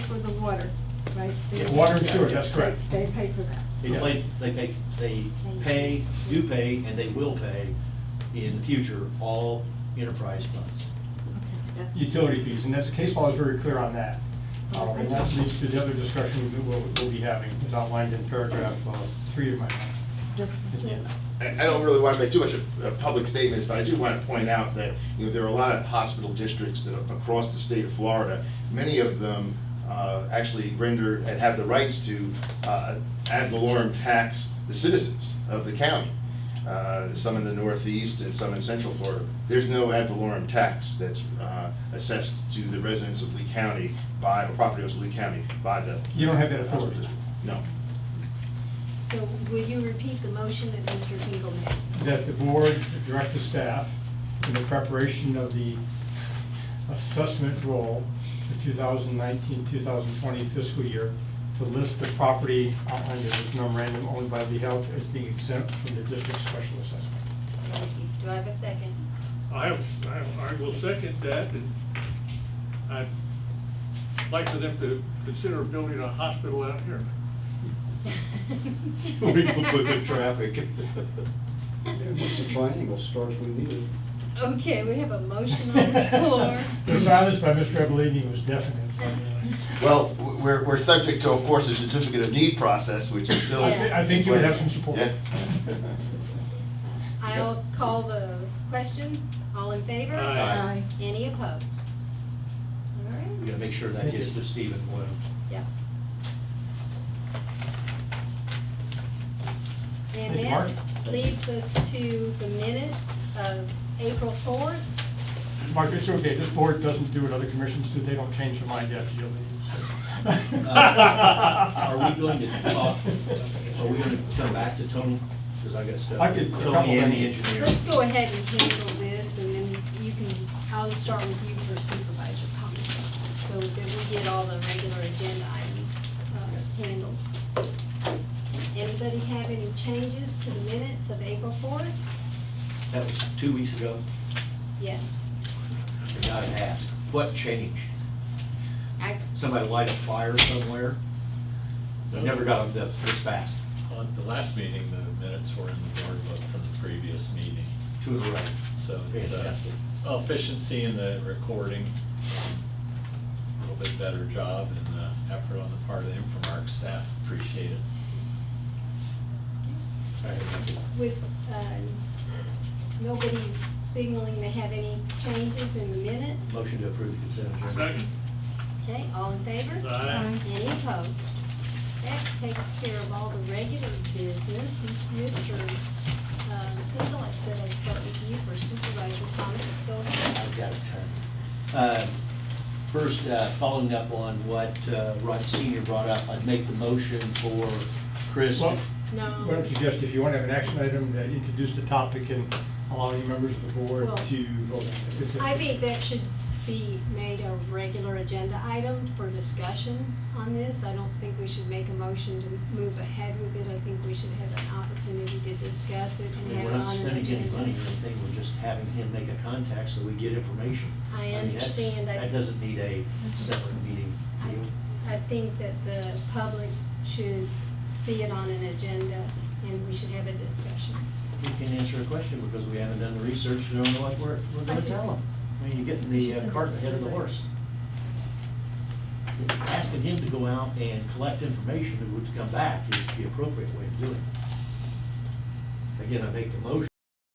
for the water, right? They- Yeah, water and sewer, that's they- correct. They pay for that. It does. They, they pay, they pay, do pay, and they will pay in the future, all enterprise funds. Okay, yeah. utility fees, and that's, case law is very clear on that. Um, And that leads to the other discussion that we'll, we'll be having, as outlined in paragraph uh, three of my, That's- Yeah. I I don't really want to make too much of uh, public statements, but I do want to point out that, you know, there are a lot of hospital districts that are across the state of Florida. Many of them uh, actually render and have the rights to uh, ad valorem tax the citizens of the county, uh, some in the northeast and some in central Florida. There's no ad valorem tax that's uh, assessed to the residents of Lee County by, or property owners of Lee County by the. You don't have that authority. hospital district. No. So will you repeat the motion that Mr. Hinkle made? that the board direct the staff in the preparation of the assessment roll for 2019, 2020 fiscal year to list the property outlined in this memorandum owned by Lee Health as being exempt from the district's special assessment. Thank you. Do I have a second? I, I, I will second that, and I'd like for them to consider building a hospital out here. We It's a triangle, starts we need it. Okay, we have a motion on the floor. The silence by Mr. Evelini was deafening. Well, w- we're, we're subject to, of course, a certificate of need process, which is still. I thi- I think you would have some support. Yeah. I'll call the question. All in favor? Aye. Aye. Any opposed? All We right, gotta make sure that gets to Stephen Boyle. yeah. Thank And you, Mark. that leads us to the minutes of April 4th. Mark, it's okay, this board doesn't do what other commissions do, they don't change their mind after you leave. so. Uh, Are we going to talk, are we gonna come back to Tony? Because I got stuff. I could- a couple Tony and the things. engineer. Let's go ahead and handle this, and then you can, I'll start with you for supervisor comments, so that we get all the regular agenda items uh, handled. Anybody have any changes to the minutes of April 4th? That was two weeks ago. Yes. The guy asked, what changed? I, Somebody light a fire somewhere? No. Never got up this, this fast. On the last meeting, the minutes were in the board book from the previous meeting, To the right. so it's uh, Fantastic. efficiency in the recording, a little bit better job and uh, effort on the part of the Infomark staff, appreciate it. I had nothing. with, uh, nobody signaling they have any changes in the minutes. Motion to approve the consent agenda. Second? Okay, all in favor? Aye. Any opposed? That takes care of all the regular business. Mr. um, Kendall, I said I'd start with you for supervisor comments. Go ahead. I've got a ton. Uh, First, uh, following up on what uh, Rod Senior brought up, I'd make the motion for Chris. Well, No. Why don't you just, if you want to have an action item that introduce the topic and allow any members of the board Well, to vote. It's a- I think that should be made a regular agenda item for discussion on this. I don't think we should make a motion to move ahead with it. I think we should have an opportunity to discuss it I and mean, have We're it not on an spending any money agenda. or anything, we're just having him make a contact so we get information. I mean, that's- understand. I- That doesn't need a separate meeting. I, I think that the public should see it on an agenda and we should have a discussion. We can answer a question because we haven't done the research, we don't know what we're, we're gonna tell them. I mean, you're getting the uh, cart ahead of the horse. Asking him to go out and collect information that would come back is the appropriate way of doing it. Again, I make the motion